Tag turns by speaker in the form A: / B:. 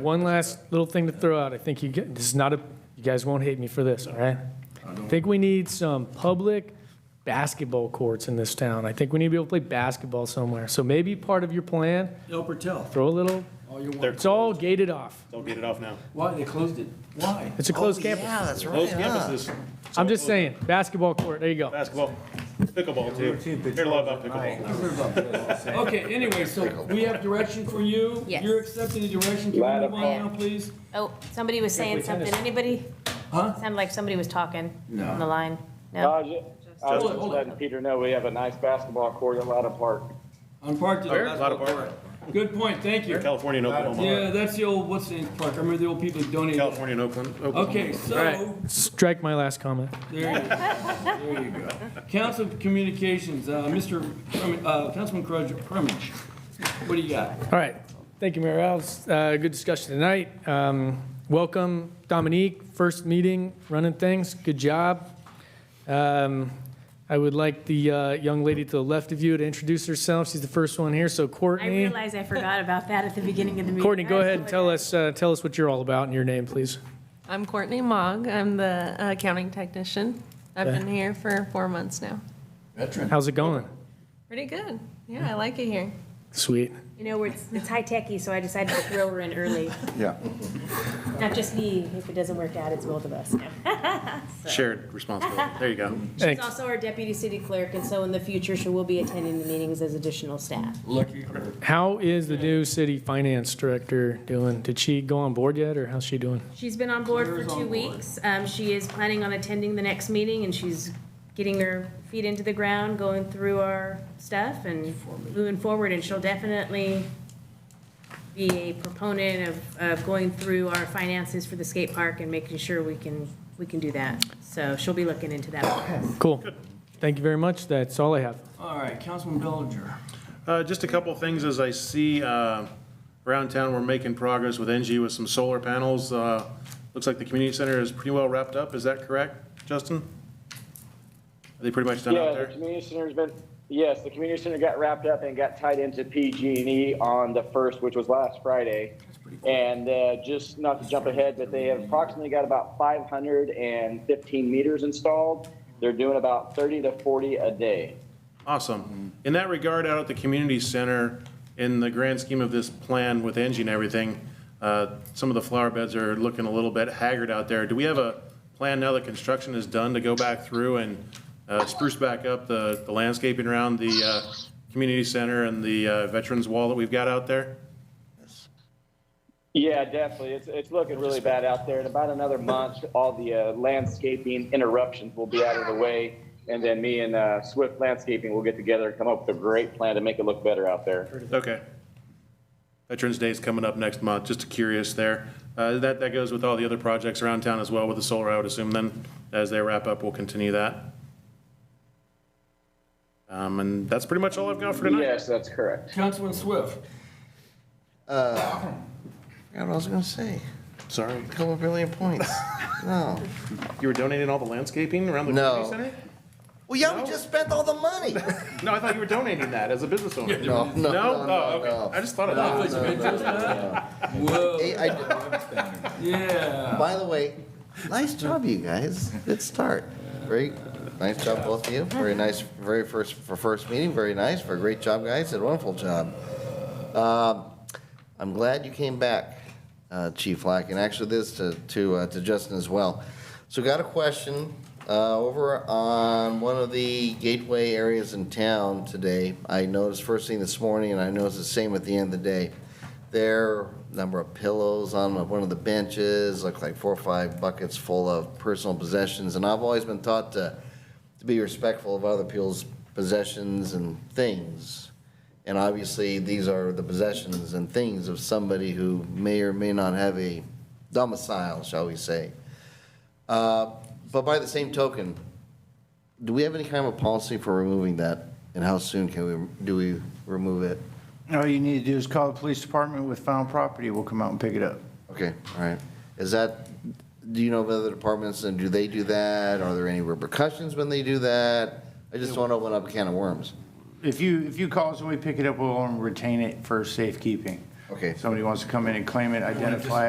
A: One last little thing to throw out. I think you get, this is not a, you guys won't hate me for this, all right? I think we need some public basketball courts in this town. I think we need to be able to play basketball somewhere. So maybe part of your plan,
B: El Patel.
A: throw a little,
B: Oh, you want,
A: it's all gated off.
C: Don't get it off now.
B: why, they closed it? Why?
A: It's a closed campus.
D: Oh, Yeah, that's right.
C: Those
D: huh?
C: campuses,
A: I'm just saying, basketball court, there you go.
C: basketball, pickleball too. Heard a lot about pickleball.
B: Okay, anyway, so we have direction for you.
E: Yes.
B: You're accepting the direction. Can we move on now,
E: Yeah.
B: please?
E: Oh, somebody was saying something. Anybody?
B: Huh?
E: Sounded like somebody was talking on the line.
F: No,
E: No?
F: I was ju- I
B: Hold
F: was
B: it,
F: just
B: hold it.
F: letting Peter know we have a nice basketball court at Lotta Park.
B: On Park today.
C: Lot of park,
B: Good point, thank you.
C: California and
B: Yeah,
C: Oklahoma.
B: that's the old, what's the name, Park, I remember the old people that donated.
C: California and Oakland. Oklahoma.
B: Okay,
A: All right,
B: so,
A: strike my last comment.
B: there you go. There you go. Council Communications, uh, Mr., Crum- uh, Councilman Crudge, Crummage, what do you got?
A: All right. Thank you, Mayor Alves. Uh, Good discussion tonight. Um, Welcome, Dominique, first meeting, running things. Good job. Um, I would like the uh, young lady to the left of you to introduce herself. She's the first one here, so
E: I
A: Courtney.
E: realize I forgot about that at the beginning of the meeting.
A: Courtney, go
E: I
A: ahead and tell us, uh, tell us what you're all about and your name, please.
G: I'm Courtney Mogg. I'm the accounting technician. I've been here for four months now.
B: Veteran.
A: How's it going?
G: Pretty good. Yeah, I like it here.
A: Sweet.
E: You know, we're- it's it's high-techy, so I decided to throw her in early.
D: Yeah.
E: Not just me. If it doesn't work out, it's both of us. No.
C: Shared responsibility. There you go.
E: She's
A: Thanks.
E: also our deputy city clerk, and so in the future, she will be attending the meetings as additional staff.
B: Lucky her.
A: How is the new city finance director doing? Did she go on board yet, or how's she doing?
E: She's been on board for
B: Claire's
E: two
B: on board.
E: weeks. Um, she is planning on attending the next meeting and she's getting her feet into the ground, going through our stuff and moving forward. And she'll definitely be a proponent of, of going through our finances for the skate park and making sure we can, we can do that. So she'll be looking into that.
A: Cool. Thank you very much. That's all I have.
B: All right, Councilman Bellinger.
C: Uh, Just a couple of things as I see uh, around town, we're making progress with NG with some solar panels. Uh, Looks like the community center is pretty well wrapped up. Is that correct, Justin? Are they pretty much done out
F: Yeah, the
C: there?
F: community center's been, yes, the community center got wrapped up and got tied into PG&E E on the first, which was last Friday. And uh, just not to jump ahead, but they have approximately got about 515 meters installed. They're doing about 30 to 40 a day.
C: Awesome. In that regard, out at the community center, in the grand scheme of this plan with Engie and everything, uh, some of the flower beds are looking a little bit haggard out there. Do we have a plan now that construction is done to go back through and uh, spruce back up the the landscaping around the uh, community center and the uh, veterans wall that we've got out there?
F: Yeah, definitely. It's, it's looking really bad out there. In about another month, all the uh, landscaping interruptions will be out of the way. And then me and uh, Swift Landscaping will get together and come up with a great plan to make it look better out there.
C: Okay. Veterans Day is coming up next month, just curious there. Uh, That, that goes with all the other projects around town as well with the solar, I would assume then, as they wrap up, we'll continue that. Um, And that's pretty much all I've got for tonight.
F: Yes, that's correct.
B: Councilman Swift.
D: Forgot what I was gonna say.
C: Sorry,
D: A couple of brilliant points. No.
C: you were donating all the landscaping around the
D: No.
C: community center?
D: Well, yeah, we just spent all the money.
C: No, I thought you were donating that as a business owner. No?
D: No, no,
C: Oh, okay. I just thought of that.
B: Whoa.
D: Hey, I-
B: Yeah.
D: By the way, nice job, you guys. Good start. Very nice job, both of you. Very nice, very first, for first meeting, very nice. For a great job, guys. Did a wonderful job. Um, I'm glad you came back, uh, Chief Lack, and actually this to, to, uh, to Justin as well. So got a question, uh, over on one of the gateway areas in town today. I noticed first thing this morning, and I noticed the same at the end of the day. There, number of pillows on one of the benches, looked like four or five buckets full of personal possessions. And I've always been taught to, to be respectful of other people's possessions and things. And obviously, these are the possessions and things of somebody who may or may not have a domicile, shall we say. Uh, But by the same token, do we have any kind of a policy for removing that? And how soon can we, do we remove it?
H: All you need to do is call the police department with found property, we'll come out and pick it up.
D: Okay, all right. Is that, do you know of other departments, and do they do that? Are there any repercussions when they do that? I just don't want to open up a can of worms.
H: um, If you, if you call us and we pick it up, we'll retain it for safekeeping.
D: Okay.
H: Somebody wants to come in and claim it, identify it.